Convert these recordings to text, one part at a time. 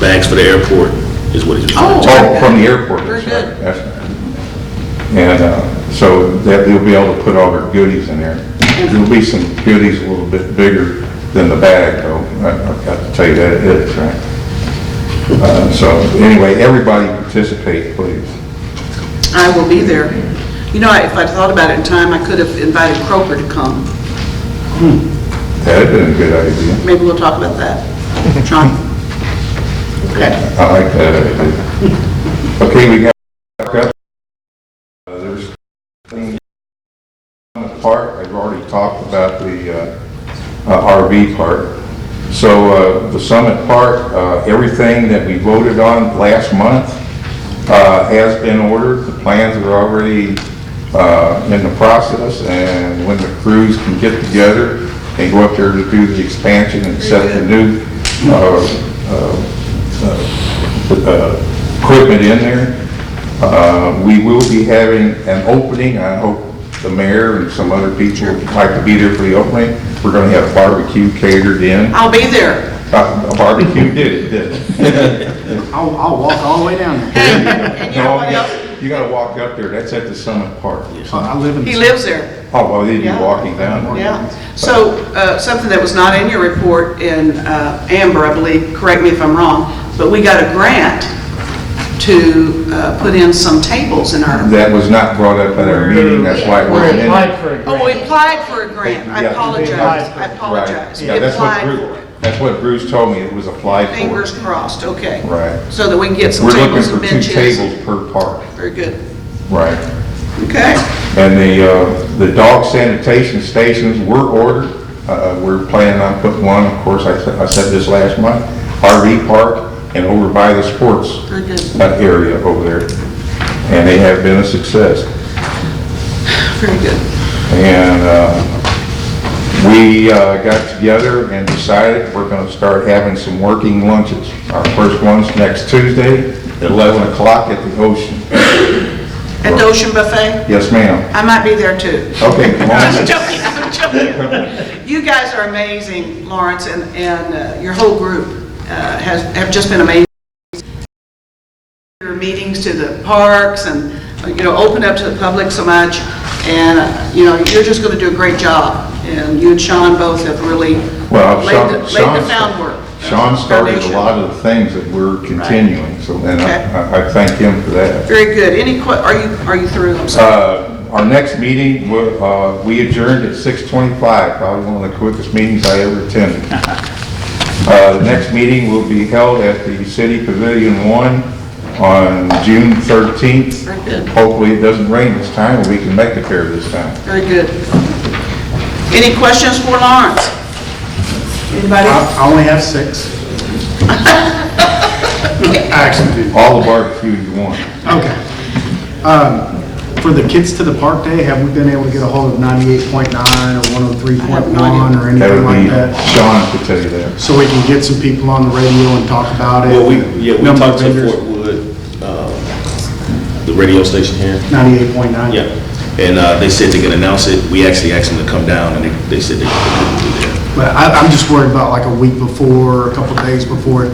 bags for the airport, is what he's referring to. Oh, From the airport, Very that's right. good. That's right. And uh, so that they'll be able to put all their goodies in there. There'll be some goodies a little bit bigger than the bag, though. I- I've got to tell you that it is, right? Uh, So anyway, everybody participate, please. I will be there. You know, if I'd thought about it in time, I could have invited Croker to come. That'd been a good idea. Maybe we'll talk about that. Sean? Okay. I like that idea. Okay, we got, got- uh, there's things on the park, I've already talked about the uh, uh, RV park. So uh, the Summit Park, uh, everything that we voted on last month uh, has been ordered. The plans are already uh, in the process, and when the crews can get together and go up there to do the expansion and set the new uh, uh, equipment in there. Uh, We will be having an opening, I hope the mayor and some other people would like to be there for the opening. We're going to have barbecue catered in. I'll be there. Uh, Barbecue did it, did it? I'll, I'll walk all the way down there. And you know what else? You got to walk up there, that's at the Summit Park. Uh, I live in. He lives there, Oh, well, they'd be Yeah. walking down. yeah. So, uh, something that was not in your report in uh, Amber, I believe, correct me if I'm wrong, but we got a grant to uh, put in some tables in our, That was not brought up at our meeting, that's why we're in it. for a oh, we applied for a grant. I Yeah. apologize, I apologize. Right. We Yeah, that's what applied for Bruce, it. that's what Bruce told me, it was applied for. Fingers crossed, okay. Right. So that we can get some We're looking tables for and benches. two tables per park. Very good. Right. Okay, And the, uh, the dog sanitation stations were ordered. Uh, We're planning on putting one, of course, I said, I said this last month, RV park and over by the sports very good. uh, area over there. And they have been a success. Very good. And uh, we uh, got together and decided we're going to start having some working lunches. Our first one's next Tuesday at 11 o'clock at the Ocean. At the Ocean Buffet? Yes, ma'am. I might be there too. Okay, come I'm on. just joking, I'm joking. You guys are amazing, Lawrence, and, and uh, your whole group uh, has, have just been amazing. Your meetings to the parks and, you know, open up to the public so much, and, uh, you know, you're just going to do a great job. And you and Sean both have really Well, laid Sean, the laid the Sean, groundwork. Sean started a foundation. lot of the things that we're continuing, so, and Okay. I- I, I thank him for that. Very good. Any, que- are you, are you through? I'm sorry. Uh, our next meeting, wa- uh, we adjourned at six twenty-five, probably one of the quickest meetings I ever attended. Uh, the next meeting will be held at the City Pavilion One on June thirteenth. Very good. Hopefully it doesn't rain this time, and we can make it there this time. Very good. Any questions for Lawrence? Anybody? I only have six. I actually do. All the barbecue you want. Okay. Um, For the Kids to the Park Day, have we been able to get a hold of 98.9 or 103.1 or That anything would like be, that? Sean could tell you that. So we can get some people on the radio and talk about it? Well, we, yeah, we Oh. Number of talked to vendors, Fort Wood, uh, the radio station here. 98.9? Yeah, and uh, they said they could announce it. We actually asked them to come down, and they- they said they couldn't do that. But I, I'm just worried about like a week before, or a couple of days before,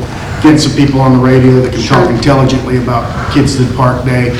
getting some people on the radio that can talk intelligently about Kids to the Park Day,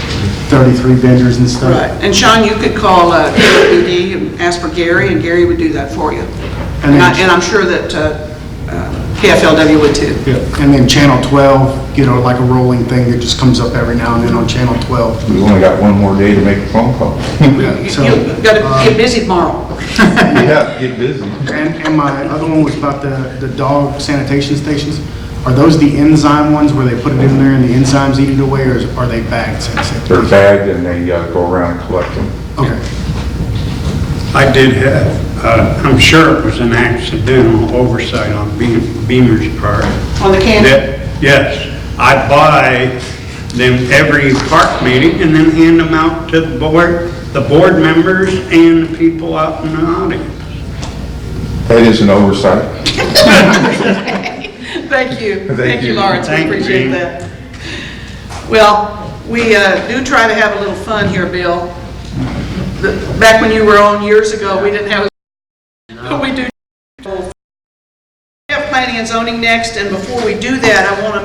33 vendors and stuff. Right. And Sean, you could call uh, KWD and ask for Gary, and Gary would do that for you. And And I- then- and I'm sure that uh, uh, KFLW would too. Yeah, And then Channel 12, you know, like a rolling thing that just comes up every now and then on Channel 12. We've only got one more day to make a phone call. So, You've got to get busy tomorrow. Yeah, get busy. And, and my other one was about the, the dog sanitation stations. Are those the enzyme ones where they put it in there and the enzymes eat it away, or is- are they bagged? sanitation? They're bagged and they uh, go around and collect them. Okay. I did have, uh, I'm sure it was an accidental oversight on Be- Beamer's part. On the can- That- Yes, I buy them every park meeting and then hand them out to the board, the board members and the people out in the audience. That is an oversight. Thank you. Thank Thank you, you. Lawrence. We Thank you, appreciate Jean. that. Well, we uh, do try to have a little fun here, Bill. The- Back when you were on years ago, we didn't have, but we do. We have planning and zoning next, and before we do that, I want to